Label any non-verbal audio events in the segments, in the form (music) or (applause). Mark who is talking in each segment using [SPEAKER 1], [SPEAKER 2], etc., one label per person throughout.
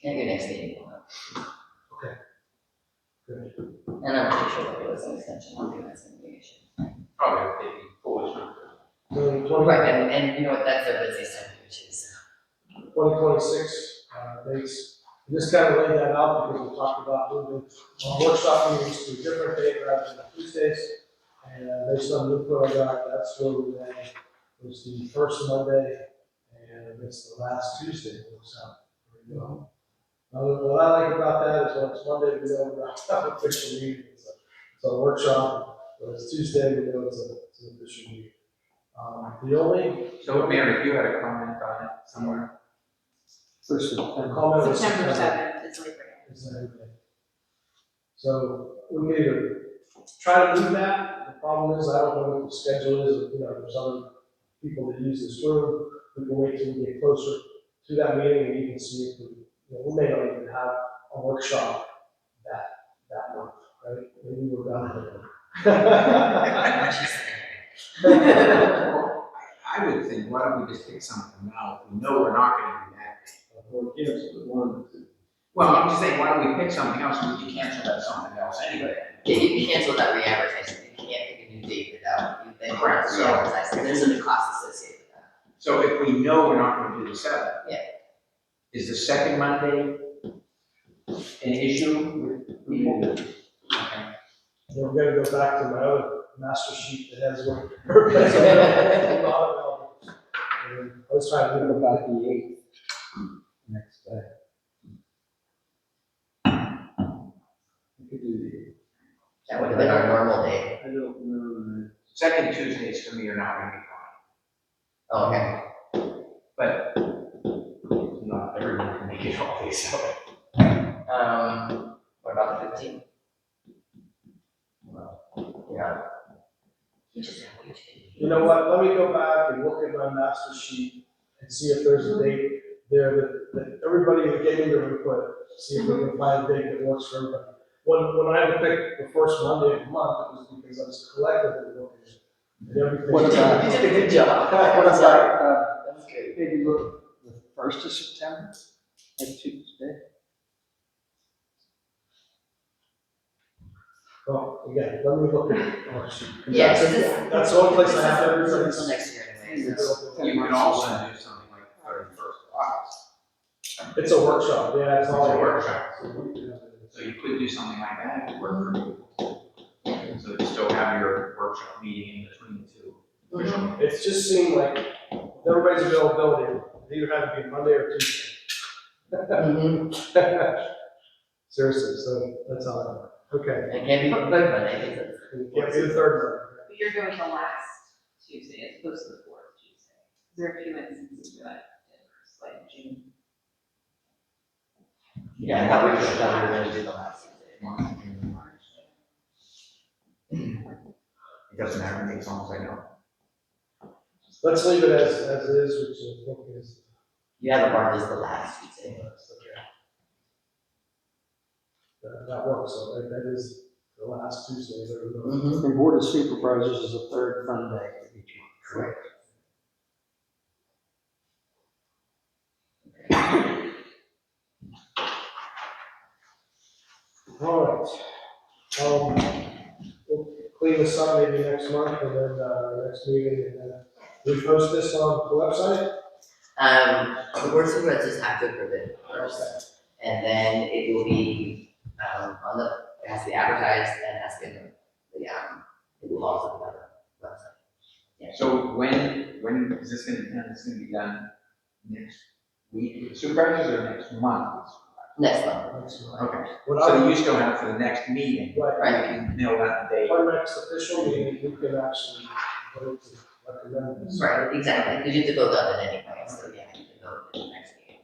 [SPEAKER 1] Can do next meeting.
[SPEAKER 2] Okay. Good.
[SPEAKER 1] And I'm pretty sure there was an extension, I don't think that's an issue.
[SPEAKER 3] Probably maybe four months.
[SPEAKER 2] Twenty
[SPEAKER 1] Well,
[SPEAKER 2] twenty,
[SPEAKER 1] Right, and, and you know what, that's their busiest time, which is,
[SPEAKER 2] twenty twenty-six, uh, they, s- just kind of laid that out because we talked about moving uh, our workshop meetings to a different day rather than Tuesdays. And uh, based on new program, that's where we landed, was the first Monday and it's the last Tuesday, it looks out. There we go. Uh, What I like about that is when it's Monday, we know we're not (laughs) an official meeting, it's a, it's a workshop. When it's Tuesday, we know it's a, it's an official meeting. Um, the only
[SPEAKER 3] So Mary, you had a comment on it somewhere?
[SPEAKER 2] First of all. Comment was
[SPEAKER 4] September seventh is Labor Day.
[SPEAKER 2] Is that okay? So we need to try to do that. The problem is, I don't know what the schedule is, you know, there's other people that use this room. We can wait till we get closer to that meeting and even see if we, you know, we may not even have a workshop that, that month, right? Maybe we're
[SPEAKER 1] uh,
[SPEAKER 2] done.
[SPEAKER 3] I would think, why don't we just pick something out, we know we're not gonna do that. Well, I'm just saying, why don't we pick something else, we can cancel that something else anyway.
[SPEAKER 1] yeah, you can cancel that re-advertising, you can't pick a new date without, you then have
[SPEAKER 3] Correct,
[SPEAKER 1] to
[SPEAKER 3] so-
[SPEAKER 1] re-advertise, so there's a cost associated with that.
[SPEAKER 3] So if we know we're not gonna do the seventh.
[SPEAKER 1] Yeah.
[SPEAKER 3] Is the second Monday an issue with people? Okay.
[SPEAKER 2] Then we're gonna go back to my other master sheet that has one. And I was trying to think about the eighth. Next day. We could do the.
[SPEAKER 1] That would have been our normal date,
[SPEAKER 2] I don't know.
[SPEAKER 3] Second Tuesdays for me are not gonna be fine,
[SPEAKER 1] oh, okay,
[SPEAKER 3] but not everyone can make it all day, so.
[SPEAKER 1] um, what about the fifteenth? Well, yeah. You just have to change.
[SPEAKER 2] You know what, let me go back and look at my master sheet and see if there's a date there that, that everybody that gave me their input, see if we can find a date that works for everybody. When, when I had to pick the first Monday of the month, it was because I was collectively looking at everything.
[SPEAKER 5] What about-
[SPEAKER 1] You did a uh, good job.
[SPEAKER 5] What
[SPEAKER 1] Sorry.
[SPEAKER 5] about, uh,
[SPEAKER 1] That's good.
[SPEAKER 5] maybe look, the first of September, that Tuesday?
[SPEAKER 2] Well, Oh, again, let me look at our sheet.
[SPEAKER 1] Yeah, so
[SPEAKER 2] That's-
[SPEAKER 1] this-
[SPEAKER 2] That's the only place I have
[SPEAKER 1] Until
[SPEAKER 2] everything.
[SPEAKER 1] next year anyway, so.
[SPEAKER 3] You can also do something like thirty first of August,
[SPEAKER 2] It's a workshop, yeah, it's
[SPEAKER 3] it's a
[SPEAKER 2] all.
[SPEAKER 3] workshop, so you could do something like that if it worked for you. So you still have your workshop meeting in between the two. official
[SPEAKER 2] It just seemed like with everybody's availability, it either had to be Monday or Tuesday.
[SPEAKER 1] Mhm.
[SPEAKER 2] Seriously, so that's all I know. Okay.
[SPEAKER 1] It can't be quick, but I think it's.
[SPEAKER 2] Can't be the third
[SPEAKER 4] But you're going the last Tuesday as opposed to the fourth Tuesday. There are a few instances where that differs, like June.
[SPEAKER 1] Yeah, I thought we should, I thought we were gonna do the last Tuesday.
[SPEAKER 3] month in March. It doesn't matter, it's almost like no.
[SPEAKER 2] one. Let's leave it as, as it is, which I think is. uh,
[SPEAKER 1] You have a bar is the last Tuesday.
[SPEAKER 2] That, that works, so that, that is the last Tuesday of every month.
[SPEAKER 1] Mm-hmm.
[SPEAKER 5] The Board of Supervisors is the third Monday of each month.
[SPEAKER 1] Correct.
[SPEAKER 2] All right. Um, we'll clean this up maybe next month and then, uh, next meeting and then we post this on the website.
[SPEAKER 1] Um, the board of supervisors have to approve it first, and then it will be, um, on the, it has to be advertised and it has to be, on the, the, um, it will also be on the website.
[SPEAKER 3] So when, when is this gonna, be done? it's gonna be done next week, supervisors or next month?
[SPEAKER 1] Next month,
[SPEAKER 2] Next month.
[SPEAKER 3] Okay,
[SPEAKER 2] What I,
[SPEAKER 3] so you still have for the next meeting,
[SPEAKER 2] right,
[SPEAKER 3] I can nail that date.
[SPEAKER 2] our next official meeting, we can actually vote to recommend this.
[SPEAKER 1] right, exactly, because you have to vote on it anyway, so yeah, you can vote at the next meeting.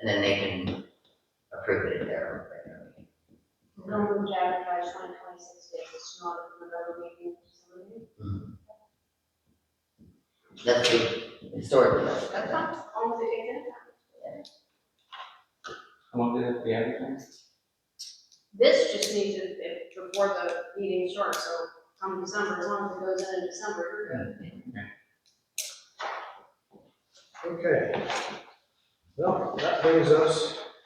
[SPEAKER 1] And then they can approve it at their regular meeting.
[SPEAKER 6] No room to advertise twenty twenty-six days, it's not a regular meeting facility.
[SPEAKER 1] That's the, historically, that's.
[SPEAKER 4] That's not,
[SPEAKER 6] Almost a day in.
[SPEAKER 3] How long did it be advertised?
[SPEAKER 6] This just needs to, if- before the meeting starts, so come December, as long as it goes in in December, you're good.
[SPEAKER 2] Okay. Well, that brings us